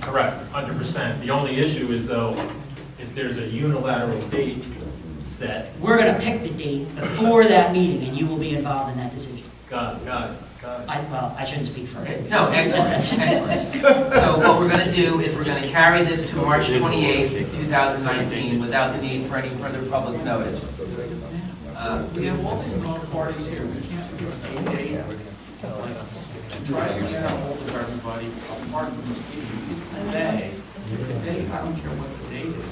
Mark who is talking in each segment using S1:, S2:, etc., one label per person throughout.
S1: Correct, hundred percent. The only issue is though, if there's a unilateral date set,
S2: We're going to pick the date before that meeting, and you will be involved in that decision.
S1: got it, got it, got it.
S2: I, well, I shouldn't speak for it.
S3: No, excellent, excellent. So what we're going to do is we're going to carry this to March 28th, 2019, without the need for any further public notice. Uh,
S4: We have all the involved parties here, we can't do it a day. to Try to get a hold of everybody apart from the meeting today. The date, I don't care what the date is.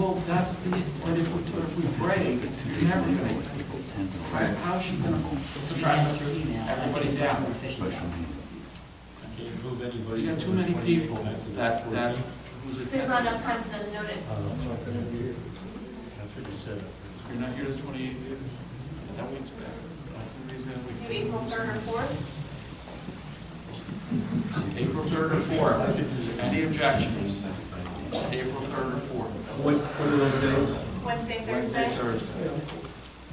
S4: Well, that's the, but if we, if we break, you're never gonna, right, how's she gonna
S2: It's
S4: try
S2: something
S4: to?
S2: through email.
S4: Everybody's out.
S2: More efficient that way.
S5: Can you move anybody?
S4: You got too many people that, that, who's
S6: There's not
S4: attending.
S6: enough time for the notice.
S5: That's what you said.
S4: You're not here the twenty-eighth, that week's bad.
S6: Do April third or fourth?
S4: April third or fourth, any objections? April third or fourth?
S5: What, what are those days?
S6: Wednesday,
S4: Wednesday,
S6: Thursday?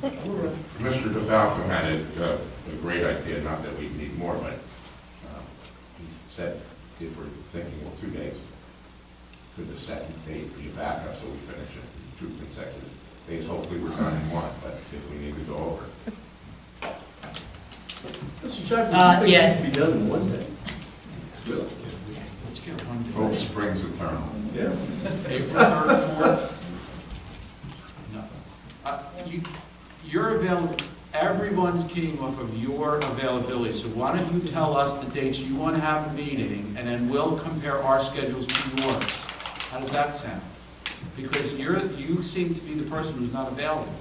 S4: Thursday.
S7: Mr. DeFalco had a, uh, a great idea, not that we need more, but uh, he said, if we're thinking of two days, could the second date be a backup, so we finish it two consecutive days? Hopefully, we're done in one, but if we need to go over.
S5: Mr. Chapman?
S2: Uh, yeah.
S5: Be done in one day.
S4: Let's get one
S7: Hope
S4: day.
S7: springs eternal.
S5: Yes.
S4: April third or fourth? No. Uh, You, your avail, everyone's keying off of your availability, so why don't you tell us the dates you want to have a meeting, and then we'll compare our schedules to yours. How does that sound? Because you're, you seem to be the person who's not available.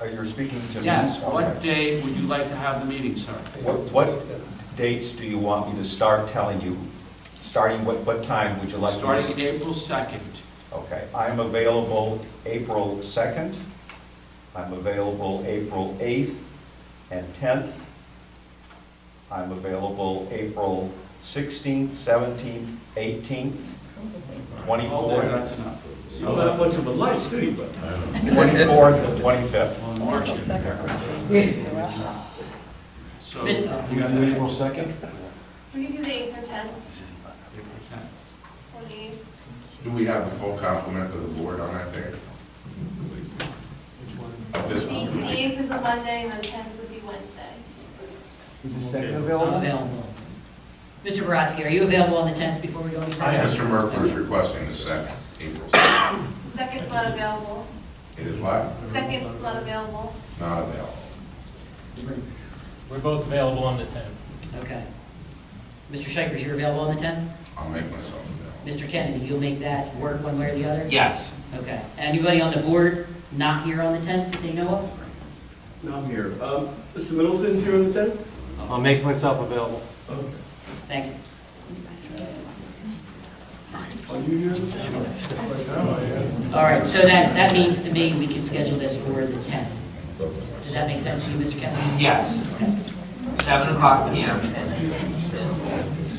S8: Are you speaking to me?
S4: Yes,
S8: Okay.
S4: what day would you like to have the meeting, sir?
S8: What, what dates do you want me to start telling you? Starting, what, what time would you like? me to-
S4: Starting April 2nd.
S8: Okay, I'm available April 2nd. I'm available April 8th and 10th. I'm available April 16th, 17th, 18th,
S4: Hold there,
S8: 24th,
S4: Oh, That's enough. So,
S5: Not that much of a light city, but.
S8: 24th and 25th.
S4: well, March, you can compare. So, you got that? April
S5: second?
S6: We can do the eighth or tenth,
S4: 10th.
S6: or the eighth.
S7: Do we have the full complement of the board on that day? Of this
S6: The
S7: one?
S6: the eighth is a Monday, and the tenth would be Wednesday.
S5: Is the second
S2: I'm available. Mr. Baratsky, are you available on the 10th before we go any further?
S1: I am.
S7: Mr. Merkel is requesting the second, April 2nd.
S6: The Second's not available.
S7: It is what?
S6: The Second's not available.
S7: Not available.
S1: We're both available on the tenth.
S2: Okay. Mr. Shikers, you're available on the 10th?
S7: I'll make myself available.
S2: Mr. Kennedy, you'll make that work one way or the other?
S4: Yes.
S2: Okay. Anybody on the board not here on the 10th that they know of?
S5: No, I'm here. Um, Mr. Middleton's here on the tenth?
S9: I'll make myself available.
S5: Okay.
S2: Thank you.
S5: Are you here on the tenth?
S2: All right, so that, that means to me, we can schedule this for the 10th. Does that make sense to you, Mr. Kennedy?
S3: Yes, 7 o'clock PM.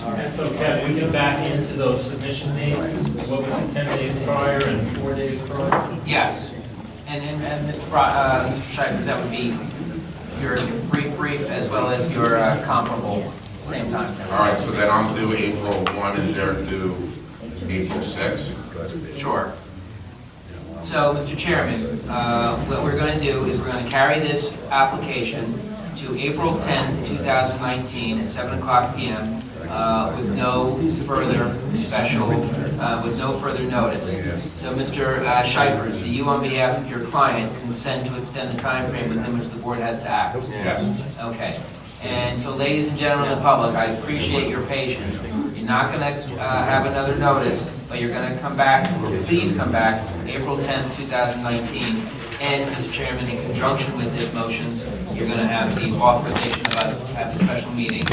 S1: And so Kevin, we get back into those submission dates, what was it, ten days prior and four days prior?
S3: Yes. And, and, and Mr. Bra, uh, Mr. Shipers, that would be your brief, brief, as well as your uh, comparable, same time.
S7: All right, so then I'm due April 1 and they're due April 6.
S3: Sure. So, Mr. Chairman, uh, what we're going to do is we're going to carry this application to April 10, 2019, at 7 o'clock PM, uh, with no further special, uh, with no further notice. So, Mr. uh, Shipers, do you, on behalf of your client, consent to extend the timeframe within which the board has to act?
S7: Yes.
S3: Okay. And so, ladies and gentlemen of the public, I appreciate your patience. You're not going to have another notice, but you're going to come back, please come back, April 10th, 2019. And, Mr. Chairman, in conjunction with this motion, you're going to have the authorization of us to have a special meeting